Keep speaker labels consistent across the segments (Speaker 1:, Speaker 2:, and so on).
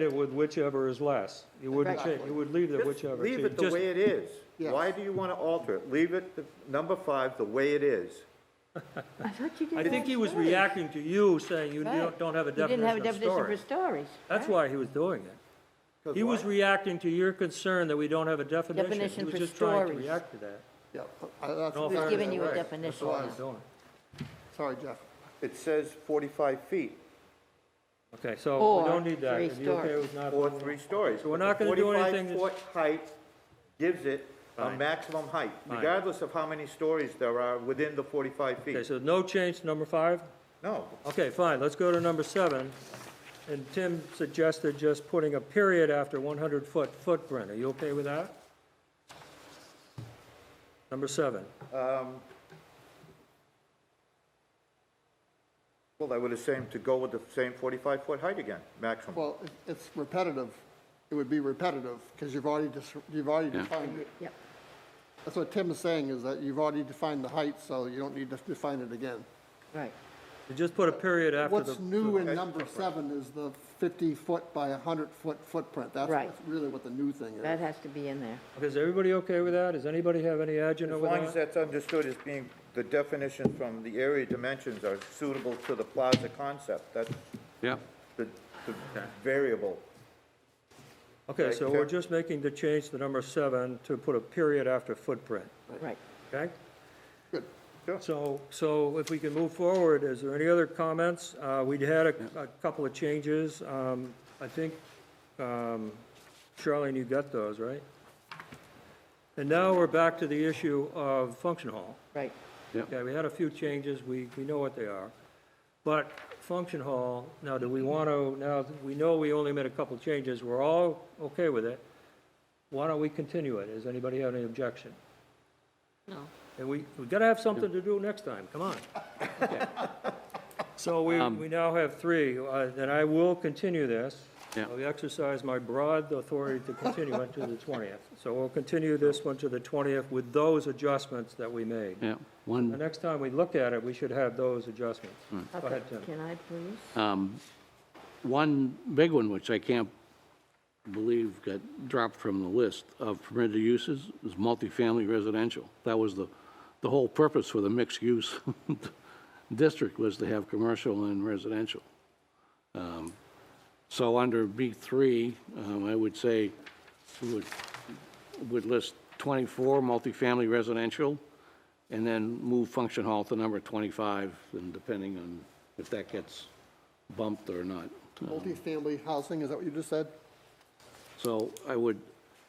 Speaker 1: it with whichever is less. You wouldn't change, you would leave it
Speaker 2: Just
Speaker 1: whichever.
Speaker 2: Leave
Speaker 1: So
Speaker 2: it the
Speaker 1: just-
Speaker 2: way it is.
Speaker 3: Yes.
Speaker 2: Why do you want to alter it? Leave it, the- number five, the way it is.
Speaker 4: I thought you did
Speaker 1: I
Speaker 4: that
Speaker 1: think he was
Speaker 4: story.
Speaker 1: reacting to you saying you
Speaker 4: Right.
Speaker 1: don't don't have a
Speaker 4: You didn't have
Speaker 1: definition
Speaker 4: a
Speaker 1: of
Speaker 4: definition for
Speaker 1: storage.
Speaker 4: stories.
Speaker 1: That's
Speaker 4: right?
Speaker 1: why he was doing it. He was reacting to your concern that we don't have a definition.
Speaker 4: Definition for
Speaker 1: He was just trying to
Speaker 4: storage.
Speaker 1: react to that.
Speaker 3: Yeah, I- that's-
Speaker 1: No
Speaker 4: He was
Speaker 1: offense,
Speaker 4: giving you a
Speaker 1: right.
Speaker 4: definition.
Speaker 1: That's why I
Speaker 4: on
Speaker 1: was
Speaker 4: it.
Speaker 1: doing
Speaker 3: Sorry, Jeff.
Speaker 2: It says 45 feet
Speaker 1: it. Okay, so
Speaker 4: Or
Speaker 1: we don't need that.
Speaker 4: three
Speaker 1: Are you okay
Speaker 4: stories.
Speaker 1: with not?
Speaker 2: or three stories.
Speaker 1: So we're not gonna do anything that's-
Speaker 2: 45-foot height gives it a
Speaker 1: Fine.
Speaker 2: maximum height,
Speaker 1: Fine.
Speaker 2: regardless of how many stories there are within the 45
Speaker 1: Okay,
Speaker 2: feet.
Speaker 1: so no change to number five?
Speaker 2: No,
Speaker 1: Okay, fine, let's go to number seven. And Tim suggested just putting a period after 100-foot footprint. Are you okay with that? Number seven.
Speaker 2: well, I would have same, to go with the same 45-foot height again, maximum.
Speaker 3: Well, it- it's repetitive. It would be repetitive because you've already, dis- you've already defined it.
Speaker 4: Yep.
Speaker 3: That's what Tim is saying, is that you've already defined the height, so you don't need to define it again.
Speaker 4: Right.
Speaker 1: You just put a period after the.
Speaker 3: What's new
Speaker 2: okay.
Speaker 3: in number seven is the 50-foot by 100-foot footprint. That's
Speaker 4: Right.
Speaker 3: what's really what the new thing is.
Speaker 4: That has to be in there.
Speaker 1: Okay, Is everybody okay with that? Does anybody have any agenda
Speaker 2: As
Speaker 1: with
Speaker 2: long as
Speaker 1: that?
Speaker 2: that's understood as being, the definition from the area dimensions are suitable to the plaza concept, that's
Speaker 5: Yeah,
Speaker 2: the the variable.
Speaker 1: Okay, so we're
Speaker 2: Okay.
Speaker 1: just making the change to number seven to put a period after footprint,
Speaker 4: Right.
Speaker 1: okay?
Speaker 3: Good.
Speaker 2: Sure.
Speaker 1: So, so if we can move forward, is there any other comments? Uh, we'd had a, a couple of changes. Um, I think, um, Charlene, you got those, right? And now we're back to the issue of function hall.
Speaker 4: Right.
Speaker 1: Okay, we had a few changes, we, we know what they are. But function hall, now do we want to, now, that we know we only made a couple changes, we're all okay with it. Why don't we continue it? Does anybody have any objection?
Speaker 4: No.
Speaker 1: And we, we gotta have something to do next time, come on. So we, we now have three, uh, and I will continue this.
Speaker 5: Yeah.
Speaker 1: I'll exercise my broad authority to continue it to the 20th. So we'll continue this one to the 20th with those adjustments that we made.
Speaker 5: yeah.
Speaker 1: The
Speaker 5: One,
Speaker 1: next time we look at it, we should have those adjustments. Go
Speaker 4: Okay.
Speaker 1: ahead, Tim.
Speaker 4: Can I please?
Speaker 5: um, one big one, which I can't believe got dropped from the list of permitted uses, is multifamily residential. That was the, the whole purpose for the mixed-use district was to have commercial and residential. Um, So under B3, um, I would say, we would, would list 24 multifamily residential, and then move function hall to number 25, and depending on if that gets bumped or not.
Speaker 3: Multifamily housing, is that what you just said?
Speaker 5: So I would,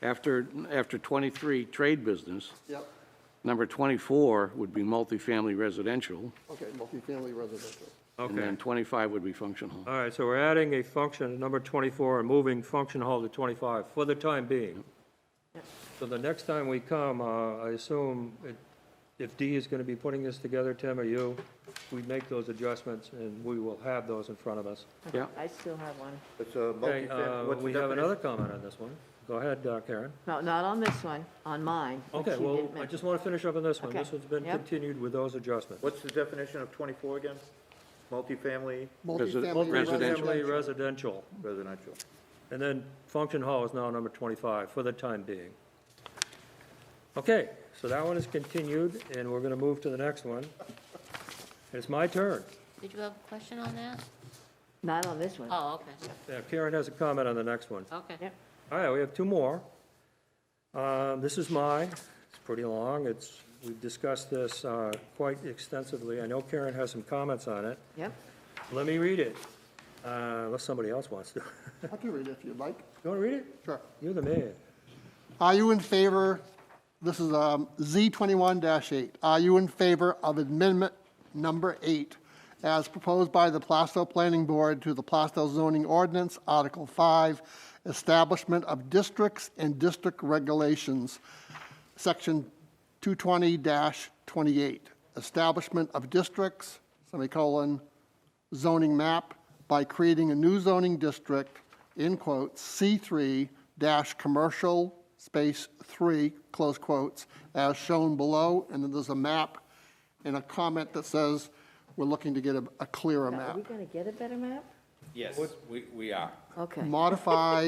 Speaker 5: after, after 23, trade business,
Speaker 3: Yep.
Speaker 5: number 24 would be multifamily residential,
Speaker 3: Okay, multifamily residential.
Speaker 5: and
Speaker 1: Okay,
Speaker 5: then 25 would be function hall.
Speaker 1: all right, so we're adding a function, number 24, and moving function hall to 25 for the time being. So the next time we come, uh, I assume it- if D is going to be putting this together, Tim or you, we make those adjustments and we will have those in front of us.
Speaker 5: Yeah.
Speaker 4: I still have one.
Speaker 2: It's a
Speaker 1: Okay,
Speaker 2: multifamily,
Speaker 1: uh,
Speaker 2: what's the
Speaker 1: we have
Speaker 2: definition?
Speaker 1: another comment on this one. Go ahead, uh, Karen.
Speaker 4: No, not on this one, on mine. which
Speaker 1: Okay,
Speaker 4: you
Speaker 1: well,
Speaker 4: didn't
Speaker 1: I
Speaker 4: mention.
Speaker 1: just want to finish up on this one.
Speaker 4: Okay,
Speaker 1: This one's been
Speaker 4: yep.
Speaker 1: continued with those adjustments.
Speaker 2: What's the definition of 24 again? Multifamily
Speaker 5: Resi-
Speaker 3: Multifamily
Speaker 5: Residential.
Speaker 1: Multifamily residential.
Speaker 2: residential.
Speaker 1: And then function hall is now number 25 for the time being. Okay, so that one is continued, and we're going to move to the next one. It's my turn.
Speaker 6: Did you have a question on that?
Speaker 4: Not on this one.
Speaker 6: Oh, okay,
Speaker 1: Yeah, Karen has a comment on the next one.
Speaker 6: okay.
Speaker 4: Yep.
Speaker 1: All right, we have two more. Um, This is mine. It's pretty long. It's, we've discussed this uh, quite extensively. I know Karen has some comments on it.
Speaker 4: Yep.
Speaker 1: Let me read it, uh, unless somebody else wants to.
Speaker 3: I can read it if you'd like.
Speaker 1: You want to read it?
Speaker 3: Sure.
Speaker 1: You're the man.
Speaker 3: Are you in favor, this is um, Z21-8, are you in favor of amendment number eight as proposed by the Plastow Planning Board to the Plastow zoning ordinance, Article 5, establishment of districts and district regulations, Section 220-28, establishment of districts, semicolon, zoning map by creating a new zoning district, in quotes, C3 dash commercial space 3, close quotes, as shown below, and then there's a map and a comment that says, we're looking to get a, a clearer
Speaker 4: Now, Are
Speaker 3: map.
Speaker 4: we going to get a better map?
Speaker 7: Yes, we, we are.
Speaker 8: Okay.
Speaker 3: modify